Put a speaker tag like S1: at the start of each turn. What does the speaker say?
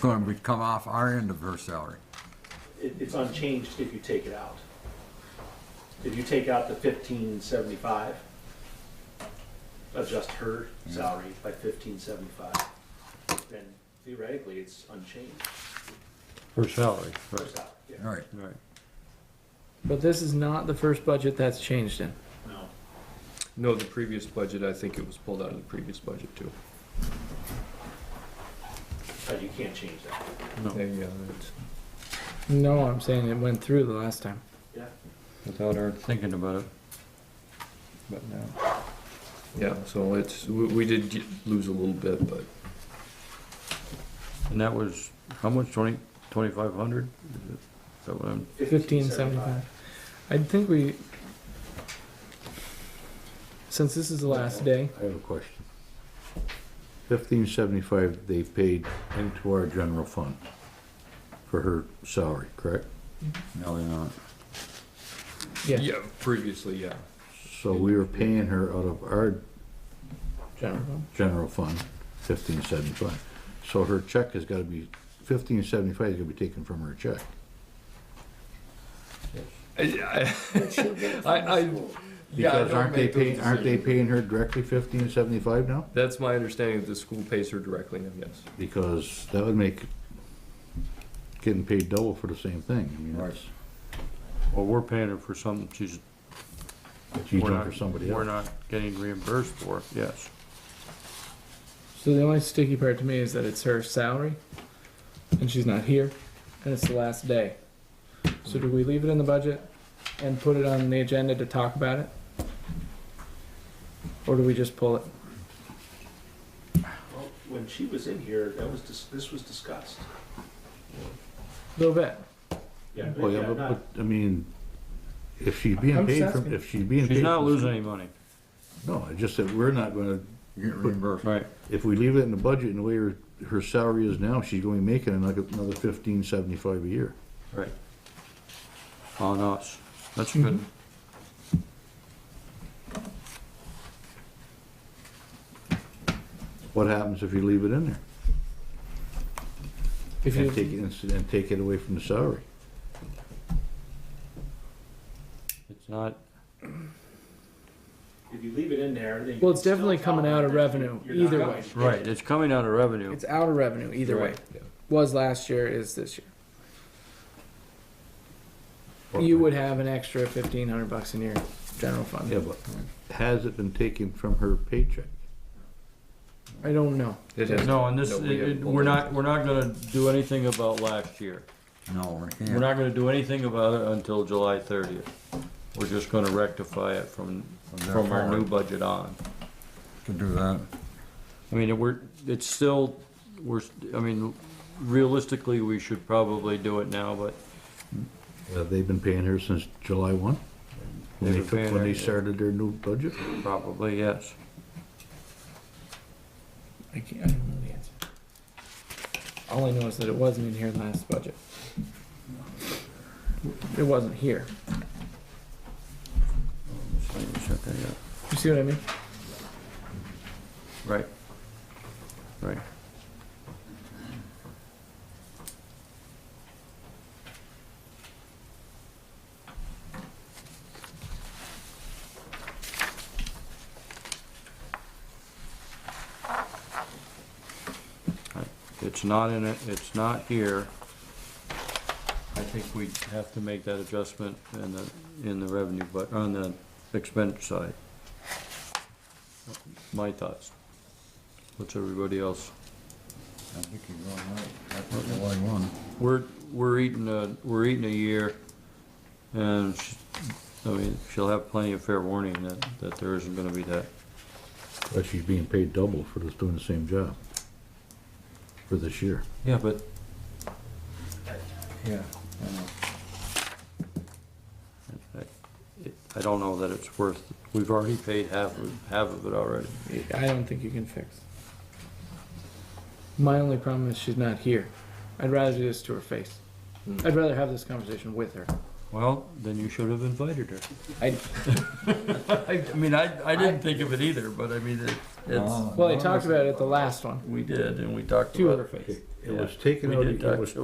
S1: Going, would come off our end of her salary.
S2: It, it's unchanged if you take it out. If you take out the fifteen seventy-five, adjust her salary by fifteen seventy-five, then theoretically, it's unchanged.
S3: Her salary,
S2: Her
S3: right,
S2: salary, yeah.
S1: All right,
S3: right.
S4: But this is not the first budget that's changed in.
S2: No.
S5: No, the previous budget, I think it was pulled out of the previous budget too.
S2: Uh, you can't change that.
S3: No,
S5: Yeah, that's-
S4: No, I'm saying it went through the last time.
S2: Yeah.
S3: without her thinking about it. But now,
S5: yeah, so it's, we, we did get- lose a little bit, but
S3: and that was, how much, twenty, twenty-five hundred? Is that what I'm,
S4: Fifteen seventy-five. I think we, since this is the last day,
S6: I have a question. Fifteen seventy-five they paid into our general fund for her salary, correct?
S1: no, they're not.
S4: yeah,
S5: yeah, previously, yeah.
S6: So we were paying her out of our
S4: general. fund.
S6: general fund, fifteen seventy-five. So her check has gotta be, fifteen seventy-five is gonna be taken from her check.
S5: I, I, I, yeah, I
S6: Because
S5: don't
S6: aren't they
S5: make those
S6: paying, aren't they
S5: decisions.
S6: paying her directly fifteen seventy-five now?
S5: That's my understanding, that the school pays her directly now, yes.
S6: Because that would make getting paid double for the same thing. I mean,
S1: Right.
S6: that's,
S3: well, we're paying her for something she's.
S6: she's
S3: we're
S6: done
S3: not-
S6: for somebody else.
S3: We're not getting reimbursed for, yes.
S4: So the only sticky part to me is that it's her salary, and she's not here, and it's the last day. So do we leave it in the budget and put it on the agenda to talk about it? Or do we just pull it?
S2: Well, When she was in here, that was, dis- this was discussed.
S4: A Little bit.
S2: Yeah, but
S6: Well, yeah,
S2: yeah,
S6: but,
S2: not-
S6: but, I mean, if she's
S4: I'm
S6: being
S4: just
S6: paid from,
S4: asking.
S6: if she's being paid.
S3: She's not
S6: from-
S3: losing any money.
S6: No, it's just that we're not gonna,
S1: You Get reimbursed.
S3: Right.
S6: if we leave it in the budget and the way her, her salary is now, she's going to be making another, another fifteen seventy-five a year.
S3: Right. On us, that's good.
S6: What happens if you leave it in there?
S4: If
S6: And take it,
S4: you,
S6: and, and take it away from the salary?
S3: It's not,
S2: if you leave it in there, then. you can
S4: Well, it's definitely
S2: still tell
S4: coming out
S2: her
S4: of
S2: that
S4: revenue,
S2: you're not
S4: either
S2: going
S4: way.
S2: to get
S3: right, it's coming out of revenue.
S4: it's out of revenue either way.
S3: Right,
S5: yeah.
S4: Was last year, is this year. You would have an extra fifteen hundred bucks in your general
S6: Yeah,
S4: fund.
S6: but has it been taken from her paycheck?
S4: I don't know.
S5: It has-
S3: No, and this,
S5: No, we
S3: it- it-
S5: haven't pulled
S3: we're
S5: it.
S3: not, we're not gonna do anything about last year.
S1: No, we
S3: We're
S1: can't.
S3: not gonna do anything about it until July thirtieth. We're just gonna rectify it from,
S1: there
S3: from our new
S1: forward.
S3: budget on.
S1: Can do that.
S3: I mean, we're, it's still, we're, I mean, realistically, we should probably do it now, but
S6: Have they Uh, been paying her since July one?
S3: They've
S6: When they,
S3: been paying
S6: when
S3: her,
S6: they
S3: yeah.
S6: started their new budget?
S3: probably, yes.
S4: I can't, I don't know the answer. All I know is that it wasn't in here last budget. It wasn't here.
S3: Check that out.
S4: You see what I mean?
S3: Right. Right. I- It's not in it, it's not here. I think we have to make that adjustment in the, in the revenue, but on the expense side my thoughts. What's everybody else?
S1: I think you're going right. That's the only one.
S3: We're, we're eating a, we're eating a year, and, sh- I mean, she'll have plenty of fair warning that, that there isn't gonna be that.
S6: Well, she's being paid double for just doing the same job for this year.
S3: Yeah, but.
S1: Yeah.
S3: I- I don't know that it's worth, we've already paid half, of- half of it already.
S4: I don't think you can fix. My only problem is she's not here. I'd rather do this to her face.
S6: Hmm.
S4: I'd rather have this conversation with her.
S3: Well, then you should have invited her.
S4: I,
S3: I, I mean, I, I didn't think of it either, but I mean, it- it's,
S4: well, I talked about it at the last one,
S3: we did, and we talked
S4: to
S3: about
S4: her
S3: it.
S4: face.
S6: It was taken
S3: We
S6: out,
S3: did
S6: it
S3: talk
S6: was
S3: to